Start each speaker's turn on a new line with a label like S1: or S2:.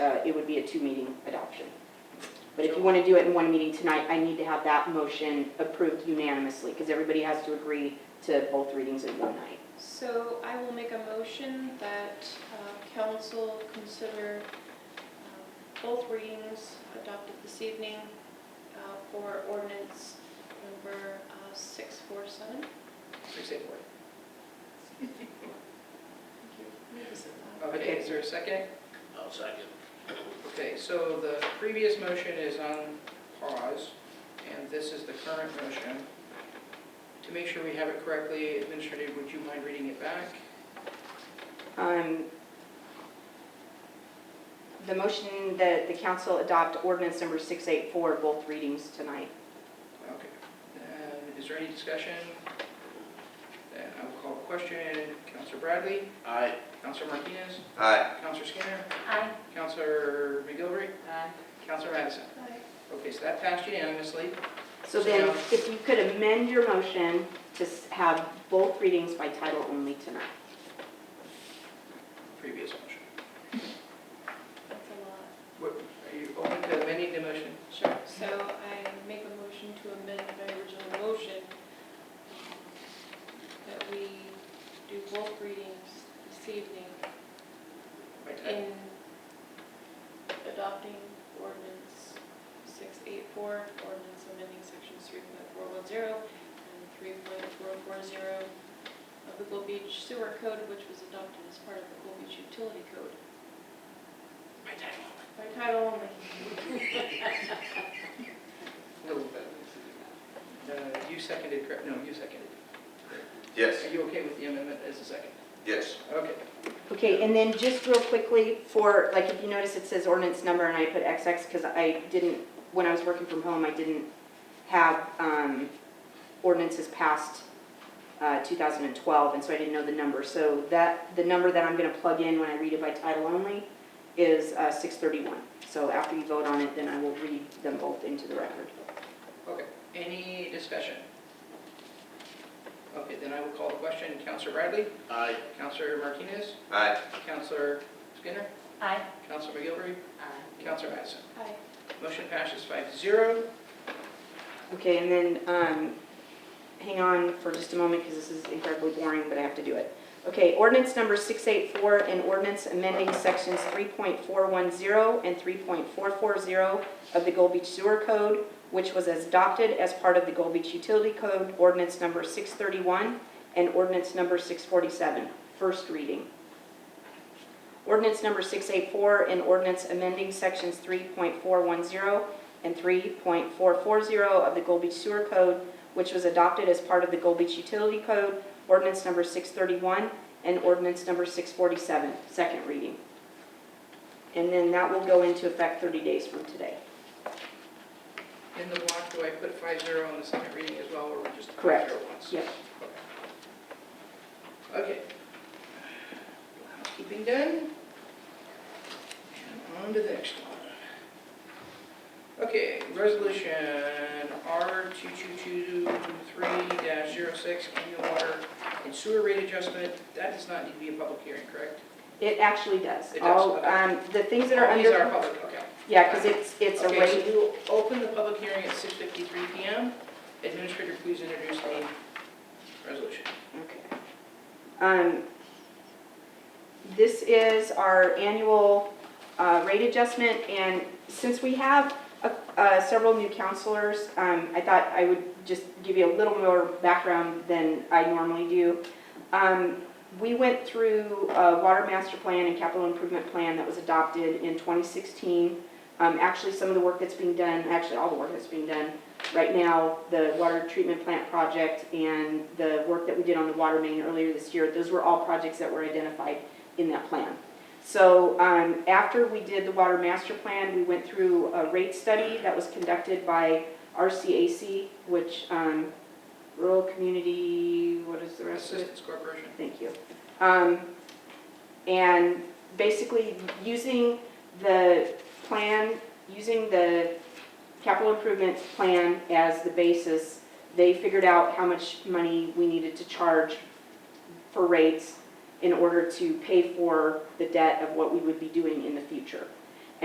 S1: uh, it would be a two-meeting adoption. But if you want to do it in one meeting tonight, I need to have that motion approved unanimously, because everybody has to agree to both readings in one night.
S2: So I will make a motion that uh, council consider um, both readings adopted this evening uh, for ordinance number uh, 647.
S3: Six eight one.
S4: Uh, Okay, is there a second?
S3: I'll second.
S4: Okay, so the previous motion is on pause, and this is the current motion. To make sure we have it correctly, Administrator, would you mind reading it back?
S1: Um, The motion that the council adopt ordinance number 684, both readings tonight.
S4: Okay. And is there any discussion? Then I will call the question. Counselor Bradley?
S3: Aye.
S4: Counselor Martinez?
S5: Aye.
S4: Counselor Skinner?
S2: Aye.
S4: Counselor McGilvery?
S1: Aye.
S4: Counselor Madison? Okay, so that passed unanimously.
S1: So then, if you could amend your motion to s- have both readings by title only tonight.
S4: Previous motion.
S2: That's a lot.
S4: What- Are you open to amending the motion?
S2: Sure. So I make a motion to amend my original motion that we do both readings this evening
S4: By title?
S2: in adopting ordinance 684, ordinance amending sections 3.410 and 3.440 of the Gold Beach Sewer Code, which was adopted as part of the Gold Beach Utility Code.
S4: By title.
S2: By title only.
S4: Little bit. Uh, You seconded, correct? No, you seconded.
S5: Yes,
S4: Are you okay with the amendment as a second?
S5: yes.
S4: Okay.
S1: Okay, and then just real quickly for, like, if you notice it says ordinance number and I put XX because I didn't, when I was working from home, I didn't have um, ordinances past uh, 2012, and so I didn't know the number. So that, the number that I'm going to plug in when I read it by title only is uh, 631. So after you vote on it, then I will read them both into the record.
S4: Okay. Any discussion? Okay, then I will call the question. Counselor Bradley?
S3: Aye.
S4: Counselor Martinez?
S5: Aye.
S4: Counselor Skinner?
S1: Aye.
S4: Counselor McGilvery? Aye. Counselor Madison?
S2: Aye.
S4: Motion passes five zero.
S1: Okay, and then, um, hang on for just a moment, because this is incredibly boring, but I have to do it. Okay, ordinance number 684, an ordinance amending sections 3.410 and 3.440 of the Gold Beach Sewer Code, which was adopted as part of the Gold Beach Utility Code, ordinance number 631 and ordinance number 647, first reading. Ordinance number 684, an ordinance amending sections 3.410 and 3.440 of the Gold Beach Sewer Code, which was adopted as part of the Gold Beach Utility Code, ordinance number 631 and ordinance number 647, second reading. And then that will go into effect 30 days from today.
S4: In the block, do I put five zero on the second reading as well, or we're just?
S1: Correct.
S4: zero once?
S1: Yep.
S4: Okay. Housekeeping done. And on to the next one. Okay, resolution R two two two three 6 annual water and sewer rate adjustment. That does not need to be a public hearing, correct?
S1: It actually does.
S4: It does,
S1: All,
S4: okay.
S1: um, The things that are
S4: All
S1: under.
S4: These are public, okay.
S1: Yeah, because it's, it's a
S4: Okay,
S1: rate.
S4: so we will open the public hearing at 6:53 PM. Administrator, please introduce the resolution.
S1: Okay. Um, This is our annual uh, rate adjustment, and since we have uh, uh, several new counselors, um, I thought I would just give you a little more background than I normally do. Um, We went through a water master plan and capital improvement plan that was adopted in 2016. Um, Actually, some of the work that's being done, actually all the work that's being done right now, the water treatment plant project and the work that we did on the water main earlier this year, those were all projects that were identified in that plan. So um, after we did the water master plan, we went through a rate study that was conducted by RCAC, which um, Rural Community, what is the rest of it?
S4: Assistance Corporation.
S1: Thank you. Um, And basically, using the plan, using the capital improvement plan as the basis, they figured out how much money we needed to charge for rates in order to pay for the debt of what we would be doing in the future.